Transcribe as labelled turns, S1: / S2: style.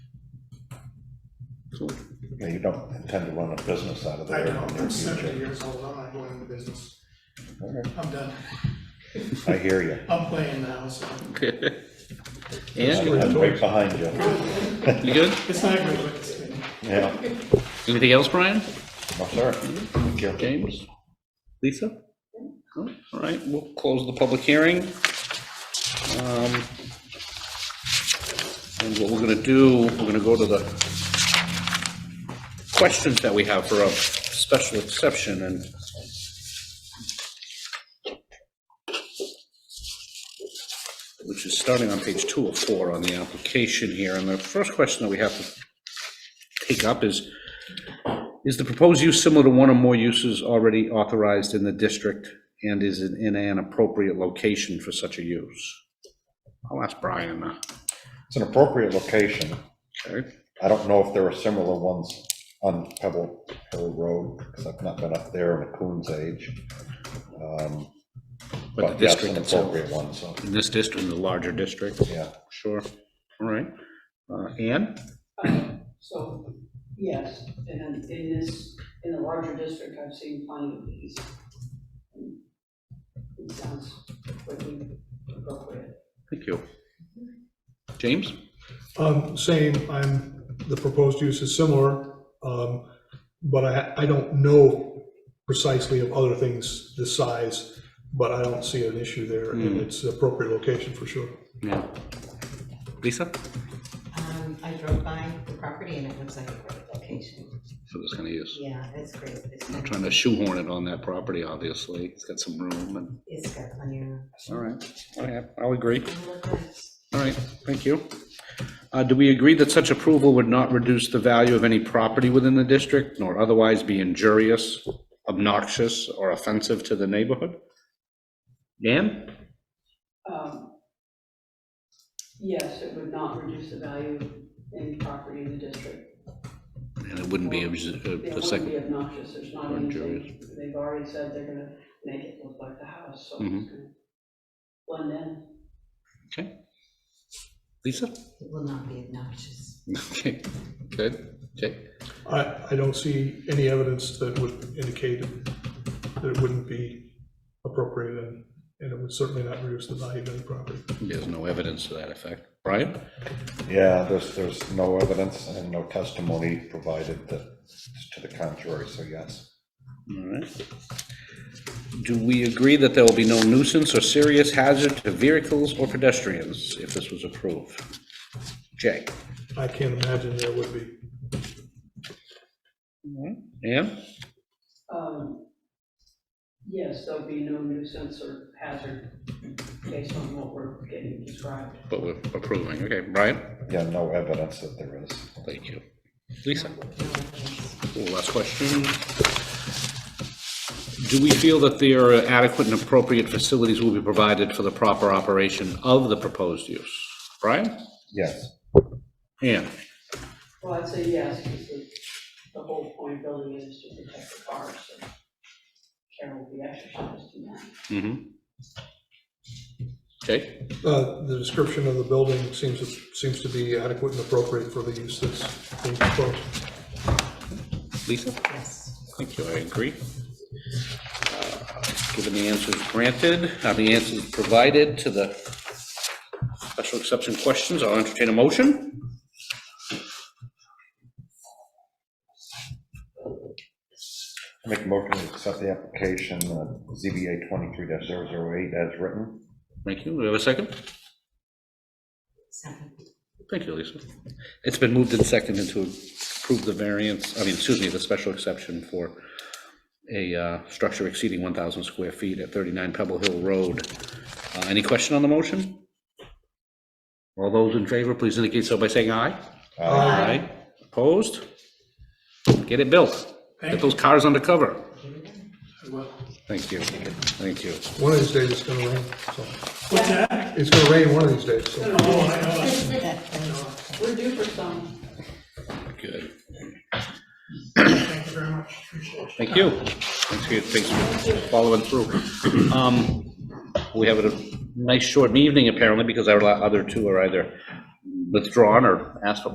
S1: years old.
S2: Yeah, you don't intend to run a business out of
S3: I
S2: there in
S3: know,
S2: the near
S3: I'm seventy
S2: future.
S3: years old, I'm not going into business,
S2: All right,
S3: I'm done,
S2: I hear you.
S3: I'm playing now, so,
S1: And,
S2: I'm right behind you.
S1: you good?
S3: it's not good, but it's, been-
S2: Yeah,
S1: Anything else, Brian?
S2: no, sir. Thank you.
S1: James? Lisa? All right, we'll close the public hearing. Um, And what we're gonna do, we're gonna go to the questions that we have for a special exception, and which is starting on page two of four on the application here, and the first question that we have to take up is, is the proposed use similar to one or more uses already authorized in the district and is it in an appropriate location for such a use? I'll ask Brian. uh,
S2: It's an appropriate location.
S1: okay?
S2: I don't know if there are similar ones on Pebble Hill Road, because I've not been up there in a coon's age. Um,
S1: But the
S2: yeah, it's
S1: district
S2: an
S1: itself,
S2: Appropriate one, so,
S1: in this district, in the larger district,
S2: yeah.
S1: sure. All right. Uh, Ann?
S4: So, yes, and in this, in the larger district, I've seen plenty of these. It sounds pretty appropriate.
S1: Thank you. James?
S5: Um, same, I'm, the proposed use is similar, um, but I, I don't know precisely of other things this size, but I don't see an issue there, and it's appropriate location for sure.
S1: Yeah. Lisa?
S6: Um, I drove by the property and it looks like a great location.
S1: For this kind of use.
S6: Yeah, it's great. It's
S1: I'm
S6: got-
S1: trying to shoehorn it on that property, obviously. It's got some room and,
S6: It's got plenty of room.
S1: all right. All right, I'll agree.
S6: It looks nice.
S1: All right, thank you. Uh, Do we agree that such approval would not reduce the value of any property within the district, nor otherwise be injurious, obnoxious, or offensive to the neighborhood? Dan?
S4: Um, Yes, it would not reduce the value of any property in the district.
S1: And it wouldn't
S4: be, uh, It
S1: the
S4: wouldn't be obnoxious, there's not
S1: Or
S4: anything, they've already said they're gonna make it look like the house, so
S1: Mhm.
S4: it's gonna blend in.
S1: Okay. Lisa?
S6: It will not be obnoxious.
S1: Okay, good. Okay.
S5: I, I don't see any evidence that would indicate that it wouldn't be appropriate, and, and it would certainly not reduce the value of any property.
S1: There's no evidence to that effect. Brian?
S2: Yeah, there's, there's no evidence and no testimony provided that, to the contrary, so yes.
S1: All right. Do we agree that there will be no nuisance or serious hazard to vehicles or pedestrians if this was approved? Jay?
S5: I can't imagine there would be.
S1: Ann?
S4: Um, Yes, there'll be no nuisance or hazard based on what we're getting described.
S1: But we're approving, okay, Brian?
S2: Yeah, no evidence that there is.
S1: Thank you. Lisa?
S6: No offense.
S1: Cool, Last question. Do we feel that there are adequate and appropriate facilities will be provided for the proper operation of the proposed use? Brian?
S2: Yes,
S1: Ann?
S4: Well, I'd say yes, because the, the whole point of building it is to protect the cars, so care will be exercised in that.
S1: Mm-hmm. Okay,
S5: Uh, the description of the building seems, to- seems to be adequate and appropriate for the use that's being proposed.
S1: Lisa?
S6: Yes.
S1: Thank you, I agree. Uh, Given the answers granted, uh, the answers provided to the special exception questions, I'll entertain a motion.
S2: make a motion to accept the application, uh, ZBA 23-008 as written.
S1: Thank you, we have a second?
S6: Second.
S1: Thank you, Lisa. It's been moved and seconded to approve the variance, I mean, excuse me, the special exception for a uh, structure exceeding 1,000 square feet at 39 Pebble Hill Road. Uh, Any question on the motion? All those in favor, please indicate so by saying aye. Aye. Opposed? Get it built. Get those cars undercover.
S3: well,
S1: Thank you, thank you.
S5: One of these days it's gonna rain, so,
S3: what's that?
S5: it's gonna rain one of these days, so.
S3: Oh, I know,
S4: We're due for some.
S1: Good.
S3: thank you very much, appreciate it.
S1: Thank you. Thanks for, your- thanks for following through. Um, We have a nice short evening apparently because our la- other two are either withdrawn or asked for